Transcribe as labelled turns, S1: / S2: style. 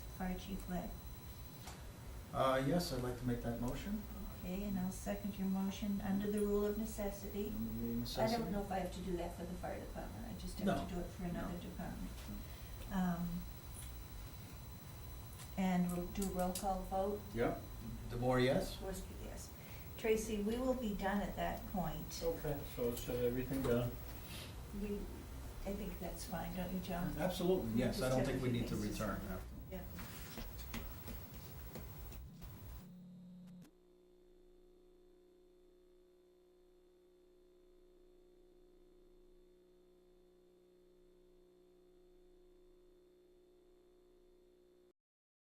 S1: Fire Chief Webb.
S2: Uh, yes, I'd like to make that motion.
S1: Okay, and I'll second your motion under the rule of necessity. I
S2: Any Um, necessity?
S1: don't know if I have to do that for the fire department, I just have
S2: No.
S1: to do it for another
S2: No.
S1: department. Um, and we'll do roll call vote,
S2: Yep. DeBoer, yes?
S1: Swirsky, yes. Tracy, we will be done at that point.
S3: Okay, so it's uh, everything done.
S1: We, I think that's fine, don't you, John?
S2: Absolutely, yes, I
S1: Just
S2: don't
S1: have
S2: think
S1: a
S2: we
S1: few
S2: need to
S1: things to
S2: return
S1: sign.
S2: after